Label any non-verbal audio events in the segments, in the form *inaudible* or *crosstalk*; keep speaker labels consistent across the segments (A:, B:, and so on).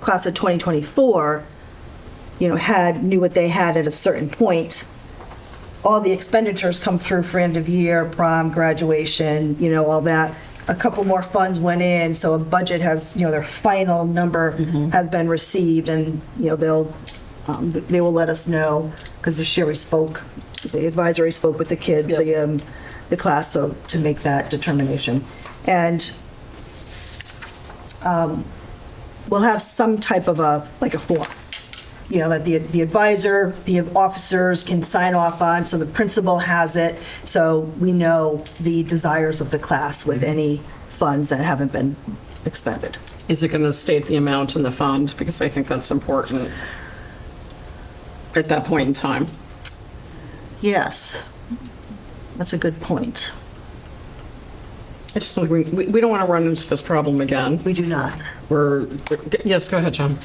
A: class of 2024, you know, had, knew what they had at a certain point. All the expenditures come through for end of year, prom, graduation, you know, all that. A couple more funds went in, so a budget has, you know, their final number has been received and, you know, they'll, um, they will let us know, because this year we spoke, the advisory spoke with the kids, the, um, the class, so to make that determination. And we'll have some type of a, like a form, you know, that the the advisor, the officers can sign off on, so the principal has it, so we know the desires of the class with any funds that haven't been expended.
B: Is it going to state the amount in the fund? Because I think that's important at that point in time.
A: Yes, that's a good point.
B: I just think we, we we don't want to run into this problem again.
A: We do not.
B: We're, yes, go ahead, John.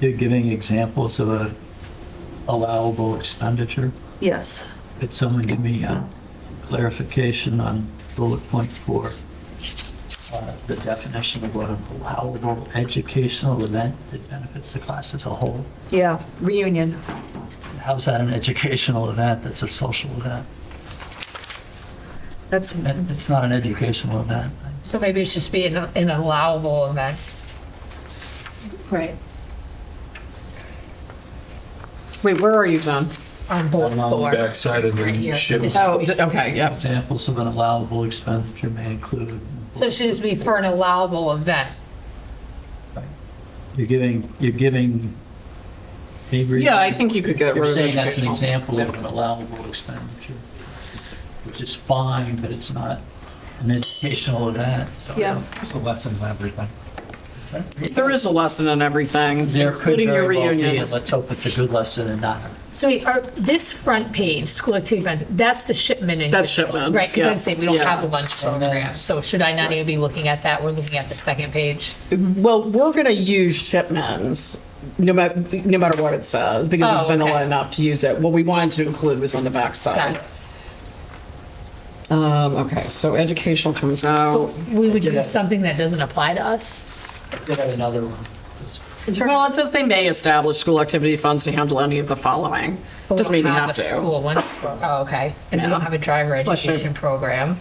C: You're giving examples of a allowable expenditure.
A: Yes.
C: Could someone give me a clarification on bullet point four? Uh, The definition of what an allowable educational event that benefits the class as a whole.
A: Yeah, reunion.
C: How's that an educational event? That's a social event.
A: That's,
C: It- It's not an educational event.
D: So maybe it should just be an, an allowable event. Right.
B: Wait, where are you, John?
D: On both
E: I'm on the
D: floors.
E: backside of
D: Right here.
E: the ship.
D: Just-
B: Oh, d- okay, yeah.
C: Examples of an allowable expenditure may include,
D: So it should just be for an allowable event.
C: you're giving, you're giving.
B: Yeah, I think you could get
C: You're
B: rid of
C: saying that's an
B: educational.
C: example of an allowable expenditure, which is fine, but it's not an educational event, so.
A: Yeah.
C: It's a lesson for everybody.
B: There is a lesson in everything,
C: There could
B: including your
C: very well be, and
B: reunions.
C: let's hope it's a good lesson and not.
D: So we are, this front page, school activity events, that's the shipment. in-
B: That's shipments,
D: Right, because I
B: yeah.
D: was saying, we don't
B: Yeah.
D: have a lunch program, so should I not even be looking at that? We're looking at the second page.
B: Well, we're going to use shipments, no matter, no matter what it says, because it's
D: Oh,
B: been
D: okay.
B: vanilla enough to use it. What we wanted to include was on the
D: Got
B: backside.
D: it.
B: Um, okay, so educational comes out.
D: We would use something that doesn't apply to us?
C: I did have another one.
B: Well, it says they may establish school activity funds to handle any of the following.
D: But we
B: Doesn't mean you
D: don't
B: have
D: a
B: to.
D: School one, oh, okay. And we
B: No.
D: don't have a driver
B: Bless you.
D: education program.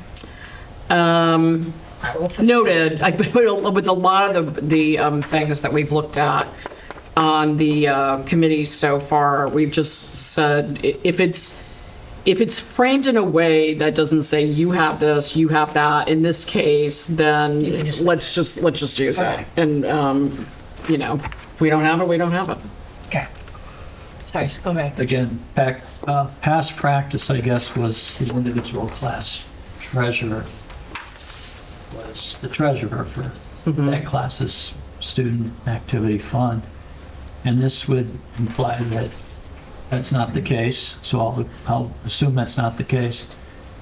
B: Um,
D: All right, we'll fix
B: noted, I- *laughs* with a lot of the, the um, things that we've looked at on the uh, committee so far, we've just said, i- if it's, if it's framed in a way that doesn't say, you have this, you have that, in this case, then let's just, let's just use it. And, um, you know, if we don't have it, we don't have it.
D: Okay. Sorry, go back.
C: Again, back, uh, past practice, I guess, was the individual class treasurer was the treasurer for that class's student activity fund. And this would imply that that's not the case, so I'll, I'll assume that's not the case,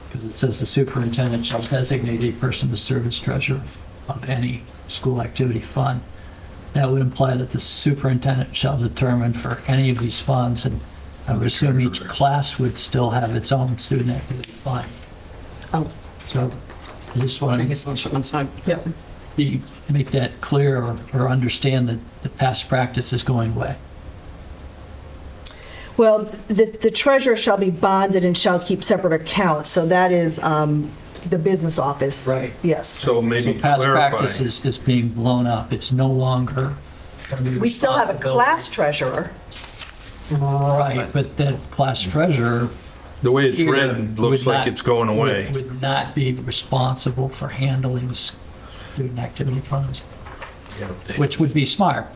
C: because it says the superintendent shall designate a person to serve as treasurer of any school activity fund. That would imply that the superintendent shall determine for any of these funds, and I would assume each class would still have its own student activity fund.
A: oh,
C: So I just want
B: I
C: to
B: guess on shipment side. Yep.
C: be, make that clear or, or understand that the past practice is going away.
A: well, the the treasurer shall be bonded and shall keep separate accounts, so that is um, the business office.
C: Right.
A: Yes.
E: So
C: So
E: maybe
C: past practice
E: clarify.
C: is, is being blown up. It's no longer.
A: We still have a class treasurer.
C: Right, but the class treasurer.
E: The way it's
C: here
E: written looks
C: would
E: like
C: not-
E: it's going away.
C: would- Would not be responsible for handling student activity funds, which would be smart.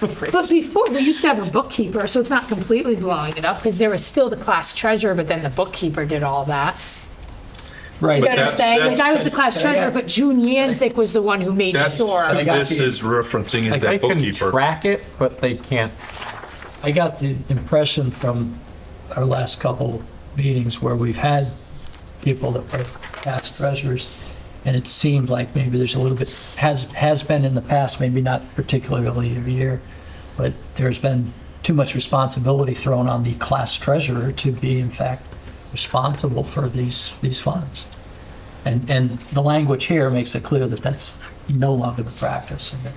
D: But before, we used to have a bookkeeper, so it's not completely blowing it up, because there was still the class treasurer, but then the bookkeeper did all that.
C: Right.
D: You know what I'm
E: that's-
D: saying? Like, I
E: that's-
D: was the class treasurer, but June Yanzik was the one who made
E: That's
D: sure.
E: who this is referencing is
F: Like, they
E: that
F: can
E: bookkeeper.
F: track it, but they can't.
C: I got the impression from our last couple meetings where we've had people that were past treasurers, and it seemed like maybe there's a little bit, has, has been in the past, maybe not particularly every year, but there's been too much responsibility thrown on the class treasurer to be in fact responsible for these, these funds. And, and the language here makes it clear that that's no longer the practice, and that